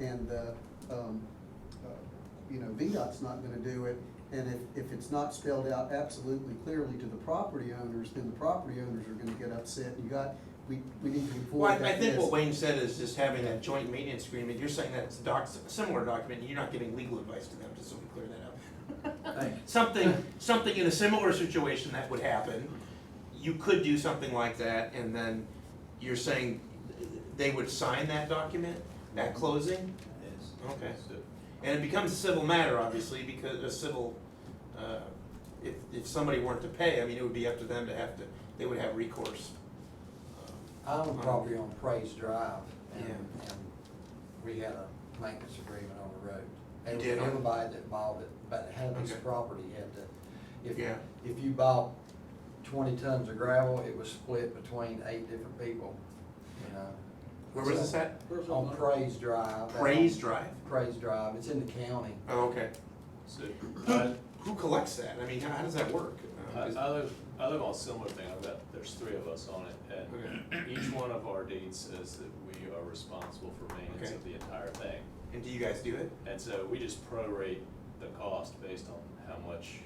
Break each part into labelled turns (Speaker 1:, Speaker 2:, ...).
Speaker 1: and the, um, uh, you know, VDOT's not gonna do it. And if, if it's not spelled out absolutely clearly to the property owners, then the property owners are gonna get upset. You got, we, we need to
Speaker 2: Well,
Speaker 1: avoid
Speaker 2: I, I
Speaker 1: that
Speaker 2: think what
Speaker 1: risk.
Speaker 2: Wayne said is just having that joint maintenance agreement, you're saying that it's a doc, a similar document, and you're not giving legal advice to them, just so we clear that up.
Speaker 3: Thank you.
Speaker 2: Something, something in a similar situation that would happen, you could do something like that, and then you're saying they would sign that document
Speaker 3: Mm-hmm.
Speaker 2: at closing?
Speaker 3: Yes.
Speaker 2: Okay. And it becomes a civil matter, obviously, because a civil, uh, if, if somebody weren't to pay, I mean, it would be up to them to have to, they would have recourse. Um,
Speaker 4: I own property on Praise Drive, and,
Speaker 2: Yeah.
Speaker 4: and we had a maintenance agreement on the road.
Speaker 2: You
Speaker 4: And
Speaker 2: did, huh?
Speaker 4: Everybody that bought it, but had this
Speaker 2: Okay.
Speaker 4: property had to, if,
Speaker 2: Yeah.
Speaker 4: if you bought twenty tons of gravel, it was split between eight different people, you know?
Speaker 2: Where was this at?
Speaker 4: On Praise Drive.
Speaker 2: Praise Drive?
Speaker 4: Praise Drive, it's in the county.
Speaker 2: Oh, okay.
Speaker 3: So,
Speaker 2: Who,
Speaker 3: I,
Speaker 2: who collects that? I mean, how, how does that work?
Speaker 3: I,
Speaker 2: Uh,
Speaker 3: I
Speaker 2: is-
Speaker 3: live, I live on a similar thing, I've got, there's three of us on it, and each one of our deeds says that we are responsible for maintenance
Speaker 2: Okay.
Speaker 3: of the entire thing.
Speaker 2: And do you guys do it?
Speaker 3: And so we just prorate the cost based on how much,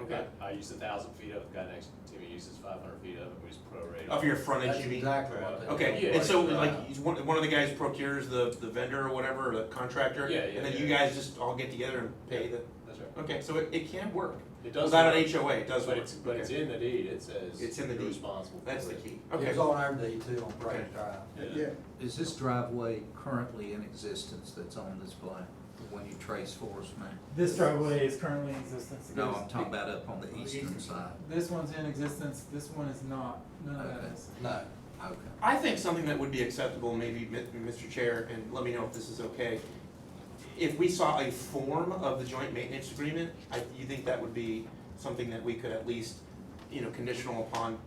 Speaker 2: Okay.
Speaker 3: I, I use a thousand feet of it, guy next to me uses five hundred feet of it, we just prorate.
Speaker 2: Of your frontage,
Speaker 4: That's
Speaker 2: you mean?
Speaker 4: exactly what they.
Speaker 2: E Okay,
Speaker 3: Yeah.
Speaker 2: and so
Speaker 4: Praise
Speaker 2: like,
Speaker 4: Drive.
Speaker 2: he's one, one of the guys procures the, the vendor or whatever, or the contractor?
Speaker 3: Yeah, yeah,
Speaker 2: And then
Speaker 3: yeah.
Speaker 2: you guys just all get together and pay the,
Speaker 3: That's right.
Speaker 2: okay, so it, it can work.
Speaker 3: It does.
Speaker 2: Without an
Speaker 3: work,
Speaker 2: HOA, it does
Speaker 3: But
Speaker 2: work.
Speaker 3: it's, but it's
Speaker 2: Okay.
Speaker 3: in the deed, it says.
Speaker 2: It's in the
Speaker 3: you're
Speaker 2: deed.
Speaker 3: Responsible for it.
Speaker 2: That's the key.
Speaker 4: It
Speaker 2: Okay.
Speaker 4: was on our deed too, on Praise
Speaker 2: Okay.
Speaker 4: Drive.
Speaker 1: Yeah,
Speaker 5: Is this driveway currently in existence that's on this plan, the one you trace for us, man?
Speaker 6: This driveway is currently in existence. It
Speaker 5: No,
Speaker 6: goes-
Speaker 5: I'm talking about up on the eastern side.
Speaker 6: This one's in existence, this one is not, none of that
Speaker 5: Okay.
Speaker 6: is.
Speaker 4: No,
Speaker 5: Okay.
Speaker 2: I think something that would be acceptable, maybe, Mi- Mr. Chair, and let me know if this is okay. If we saw a form of the joint maintenance agreement, I, you think that would be something that we could at least, you know, conditional upon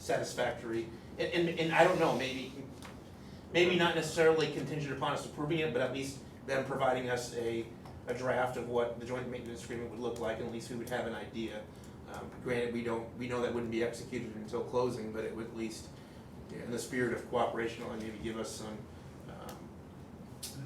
Speaker 2: satisfactory? And, and, and I don't know, maybe, maybe not necessarily contingent upon us approving it, but at least them providing us a, a draft of what the joint maintenance agreement would look like, and at least we would have an idea. Um, granted, we don't, we know that wouldn't be executed until closing, but it would at least in the spirit of cooperation, only maybe give us some um,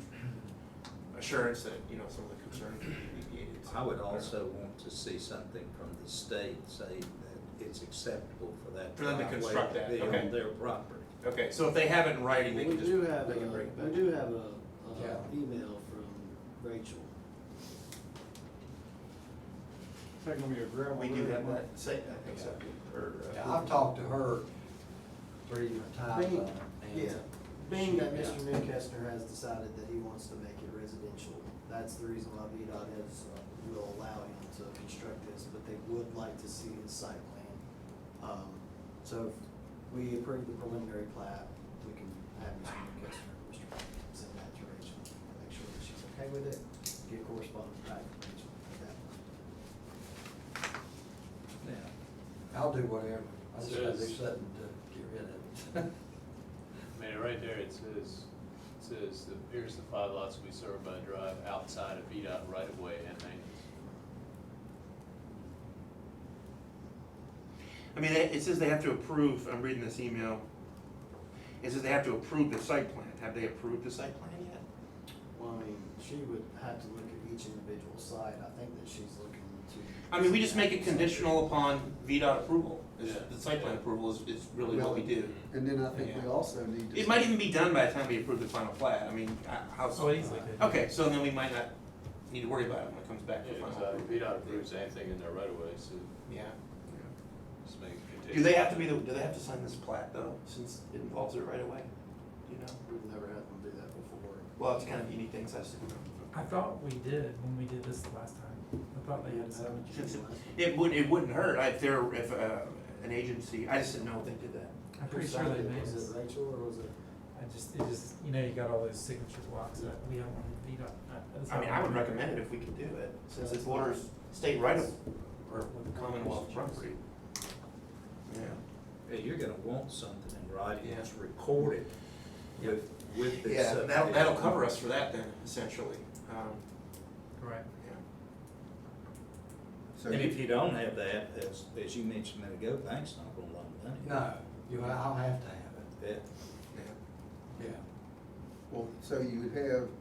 Speaker 2: assurance that, you know, some of the concerns will be alleviated. so-
Speaker 5: I would also want to see something from the state saying that it's acceptable for that
Speaker 2: For them to
Speaker 5: driveway
Speaker 2: construct that,
Speaker 5: to be
Speaker 2: okay.
Speaker 5: on their property.
Speaker 2: Okay, so if they have it in writing, they
Speaker 7: We
Speaker 2: can just,
Speaker 7: do have,
Speaker 2: they
Speaker 7: a-
Speaker 2: can bring it back.
Speaker 7: we do have a,
Speaker 4: Yeah.
Speaker 7: uh, email from Rachel.
Speaker 6: Second one, your grandma.
Speaker 2: We do have that, say, I think so. Or, uh,
Speaker 4: Yeah, I've talked to her three different times on it. and-
Speaker 7: Yeah, being that
Speaker 4: Yeah.
Speaker 7: Mr. Newcastle has decided that he wants to make it residential, that's the reason why VDOT has, uh, will allow him to construct this, but they would like to see his site plan. Um, so if we approve the preliminary plat, we can have Mr. Newcastle, Mr. Newcastle send that to Rachel, make sure that she's okay with it, get correspondence back from Rachel at that point.
Speaker 5: Yeah.
Speaker 4: I'll do whatever. I just gotta do
Speaker 3: Says-
Speaker 4: something to get rid of it.
Speaker 3: I mean, right there, it says, it says, the- here's the five lots we serve by drive outside of VDOT right of way and maintenance.
Speaker 2: I mean, it it says they have to approve, I'm reading this email. It says they have to approve the site plan. Have they approved the site plan yet?
Speaker 7: Well, I mean, she would have to look at each individual site, I think that she's looking to.
Speaker 2: I mean, we just make it conditional upon VDOT approval. Is-
Speaker 3: Yeah.
Speaker 2: The site plan approval is, is really what we do.
Speaker 1: and then I think we also need to.
Speaker 2: It might even be done by the time we approve the final plat. I mean, I- how.
Speaker 3: Oh,
Speaker 6: So easily.
Speaker 2: Okay, so then we might not need to worry about it when it comes back to
Speaker 3: Yeah,
Speaker 2: final.
Speaker 3: so
Speaker 2: approval.
Speaker 3: uh, VDOT approves anything in their right of way, so
Speaker 2: Yeah.
Speaker 3: just make it
Speaker 2: Do
Speaker 3: conditional.
Speaker 2: they have to be, the? do they have to sign this plat though, since it involves it right away? Do you know?
Speaker 7: We've never had them do that before.
Speaker 2: Well, it's kind of unique things I've seen.
Speaker 6: I thought we did when we did this last time. I thought they had some.
Speaker 2: Since it, it would, it wouldn't hurt if there, if, uh, an agency, I just didn't know if they did that.
Speaker 6: I'm pretty sure they made
Speaker 7: Was
Speaker 6: us.
Speaker 7: it Rachel or was it?
Speaker 6: I just, it just, you know, you got all those signature blocks that we have on the VDOT. that's
Speaker 2: I mean,
Speaker 6: how
Speaker 2: I would
Speaker 6: we-
Speaker 2: recommend it if we could do it, since it borders state right of, or Commonwealth property. Yeah.
Speaker 5: Hey, you're gonna want something in writing
Speaker 2: Yeah.
Speaker 5: that's recorded with, with this. uh,
Speaker 2: Yeah, that'll, that'll
Speaker 5: subdivision.
Speaker 2: cover us for that then, essentially, um,
Speaker 6: Right.
Speaker 2: yeah.
Speaker 1: So-
Speaker 5: And if you don't have that, as, as you mentioned a minute ago, bank's not gonna loan money.
Speaker 4: No, you, I'll have to have it.
Speaker 5: Yeah.
Speaker 2: Yeah.
Speaker 4: Yeah.
Speaker 7: Well, so you would have